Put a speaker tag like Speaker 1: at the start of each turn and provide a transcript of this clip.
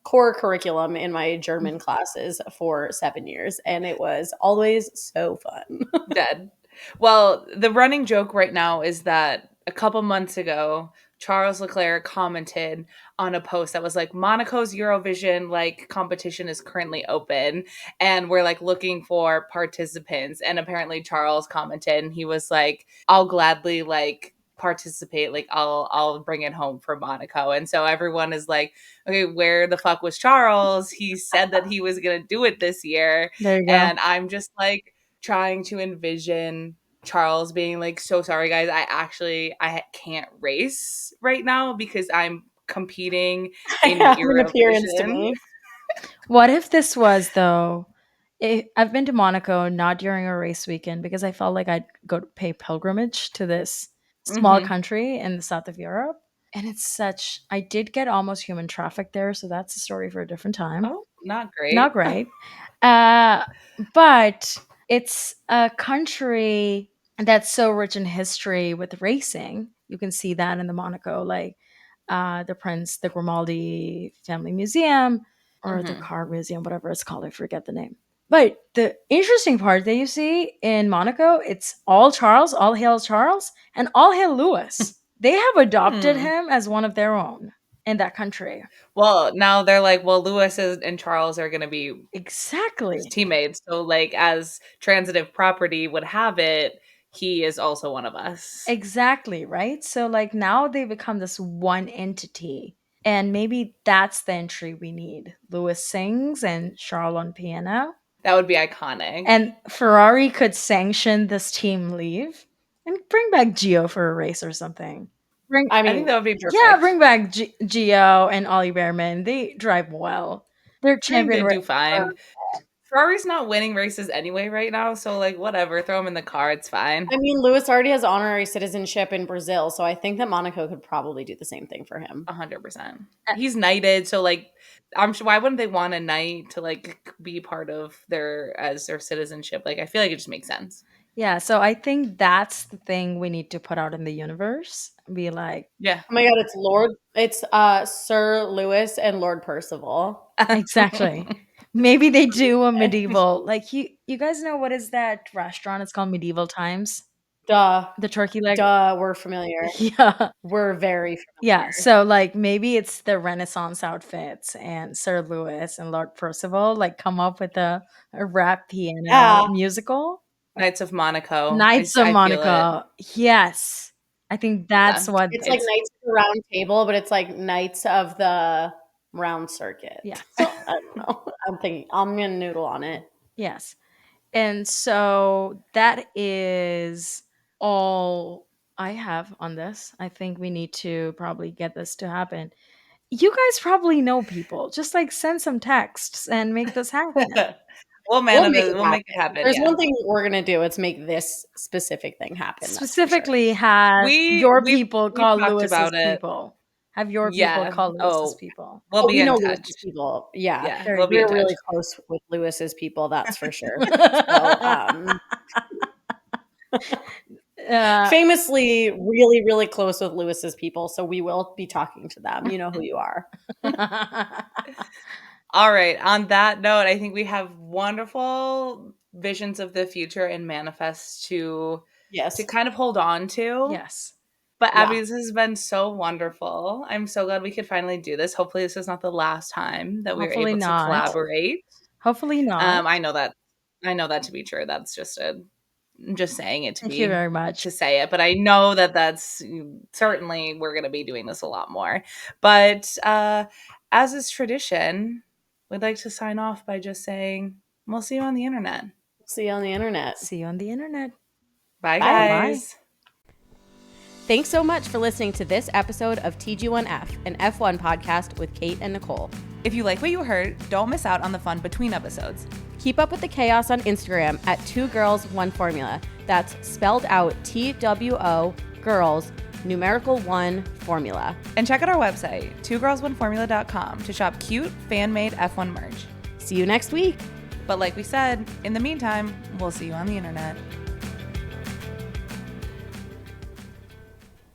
Speaker 1: core curriculum in my German classes for seven years, and it was always so fun.
Speaker 2: Dead. Well, the running joke right now is that a couple months ago, Charles Leclerc commented on a post that was like Monaco's Eurovision like competition is currently open and we're like looking for participants and apparently Charles commented and he was like I'll gladly like participate like I'll I'll bring it home for Monaco and so everyone is like okay where the fuck was Charles he said that he was going to do it this year
Speaker 1: There you
Speaker 2: and I'm just like trying to envision Charles being like, "So sorry, guys. I actually I can't race right now because I'm competing in
Speaker 1: an appearance to
Speaker 2: Eurovision."
Speaker 1: me.
Speaker 3: What if this was though? i I've been to Monaco not during a race weekend because I felt like I'd go to pay pilgrimage to this small
Speaker 2: Mhm.
Speaker 3: country in the south of Europe. And it's such, I did get almost human traffic there. So that's a story for a different time.
Speaker 2: Oh, not great.
Speaker 3: Not great. Uh, but it's a country that's so rich in history with racing. You can see that in the Monaco, like uh, the Prince, the Grimaldi Family Museum, or the
Speaker 2: Mhm.
Speaker 3: Car Museum, whatever it's called. I forget the name. But the interesting part that you see in Monaco, it's all Charles, all hail Charles, and all hail Lewis. they have adopted
Speaker 2: Hmm.
Speaker 3: him as one of their own in that country.
Speaker 2: Well, now they're like, well, Lewis is, and Charles are going to be
Speaker 3: Exactly.
Speaker 2: his teammates. So, like, as transitive property would have it, he is also one of us.
Speaker 3: Exactly, right? So like now they become this one entity. And maybe that's the entry we need. Lewis sings and Charles on piano.
Speaker 2: That would be iconic.
Speaker 3: And Ferrari could sanction this team leave and bring back Gio for a race or something. Bring
Speaker 1: I
Speaker 2: I,
Speaker 1: mean,
Speaker 2: think that would be perfect.
Speaker 3: Yeah, bring back G- Gio and Ollie Behrman. They drive well. They're
Speaker 2: I think
Speaker 3: champion.
Speaker 2: they
Speaker 3: ra-
Speaker 2: do
Speaker 1: Um,
Speaker 2: fine. Ferrari's not winning races anyway right now, so like whatever, throw him in the car, it's fine.
Speaker 1: I mean, Lewis already has honorary citizenship in Brazil, so I think that Monaco could probably do the same thing for him. Oh
Speaker 2: A hundred percent. He's knighted, so like, I'm sure. Why wouldn't they want a knight to like be part of their as their citizenship? Like, I feel like it just makes sense.
Speaker 3: yeah, so I think that's the thing we need to put out in the universe. Be like,
Speaker 2: Yeah,
Speaker 1: Oh my god, it's Lord, it's uh Sir Lewis and Lord Percival.
Speaker 3: Exactly. Maybe they do a medieval. Like you, you guys know what is that restaurant? It's called Medieval Times.
Speaker 1: Duh,
Speaker 3: The turkey leg.
Speaker 1: duh, we're familiar.
Speaker 3: Yeah,
Speaker 1: We're very familiar.
Speaker 3: yeah. So like maybe it's the Renaissance outfits and Sir Lewis and Lord Percival like come up with a, a rap piano
Speaker 1: Yeah.
Speaker 3: musical.
Speaker 2: Knights of Monaco. Oh, I s-
Speaker 3: Knights of
Speaker 2: I feel it.
Speaker 3: Monaco. Yes, I think that's
Speaker 2: Yeah.
Speaker 3: what.
Speaker 1: It's like Knights of the Round Table, but it's like Knights of the Round Circuit.
Speaker 3: Yeah.
Speaker 1: So, I don't know. I'm thinking I'm gonna noodle on it.
Speaker 3: Yes. And so that is all I have on this. I think we need to probably get this to happen. You guys probably know people. Just like send some texts and make this happen.
Speaker 2: we'll man,
Speaker 1: make
Speaker 2: we'll,
Speaker 1: it
Speaker 2: we'll make it happen.
Speaker 1: There's
Speaker 2: yeah.
Speaker 1: one thing we're gonna do. It's make this specific thing happen. that's for sure.
Speaker 3: Specifically, have
Speaker 2: We-
Speaker 3: your
Speaker 2: we-
Speaker 3: people
Speaker 2: we
Speaker 3: call
Speaker 2: talked
Speaker 3: Lewis's
Speaker 2: about it.
Speaker 3: people. Have your
Speaker 2: Yeah,
Speaker 3: people call Lewis's
Speaker 2: oh.
Speaker 3: people.
Speaker 2: We'll
Speaker 1: Oh,
Speaker 2: be
Speaker 1: we know
Speaker 2: in touch.
Speaker 1: Lewis's people. Yeah,
Speaker 2: Yeah,
Speaker 3: Very
Speaker 2: we'll be in
Speaker 1: we're
Speaker 2: touch.
Speaker 1: really close with Lewis's people. That's for sure. so,
Speaker 2: Oh,
Speaker 1: um,
Speaker 3: Uh,
Speaker 1: famously, really, really close with Lewis's people. So we will be talking to them. You know who you are.
Speaker 2: All right. On that note, I think we have wonderful visions of the future and manifests to
Speaker 1: Yes.
Speaker 2: to kind of hold on to.
Speaker 3: yes.
Speaker 2: But
Speaker 1: Yeah.
Speaker 2: Abby, this has been so wonderful. I'm so glad we could finally do this. Hopefully, this is not the last time that we were
Speaker 3: Hopefully
Speaker 2: able
Speaker 3: not.
Speaker 2: to collaborate.
Speaker 3: Hopefully not.
Speaker 2: Um, I know that. I know that to be true. That's just a. I'm just saying it to
Speaker 3: Thank
Speaker 2: be
Speaker 3: you very much.
Speaker 2: to say it, but I know that that's certainly we're going to be doing this a lot more. But uh, as is tradition, we'd like to sign off by just saying we'll see you on the internet.
Speaker 1: See you on the internet.
Speaker 3: See you on the internet.
Speaker 2: Bye,
Speaker 1: Bye.
Speaker 2: guys.
Speaker 1: Thanks so much for listening to this episode of TG1F, an F1 podcast with Kate and Nicole.
Speaker 2: If you like what you heard, don't miss out on the fun between episodes.
Speaker 1: Keep up with the chaos on Instagram at Two Girls One Formula. That's spelled out T W O Girls Numerical One Formula.
Speaker 2: And check out our website, twogirlsoneformula.com, to shop cute fan made F1 merch.
Speaker 1: See you next week.
Speaker 2: But like we said, in the meantime, we'll see you on the internet.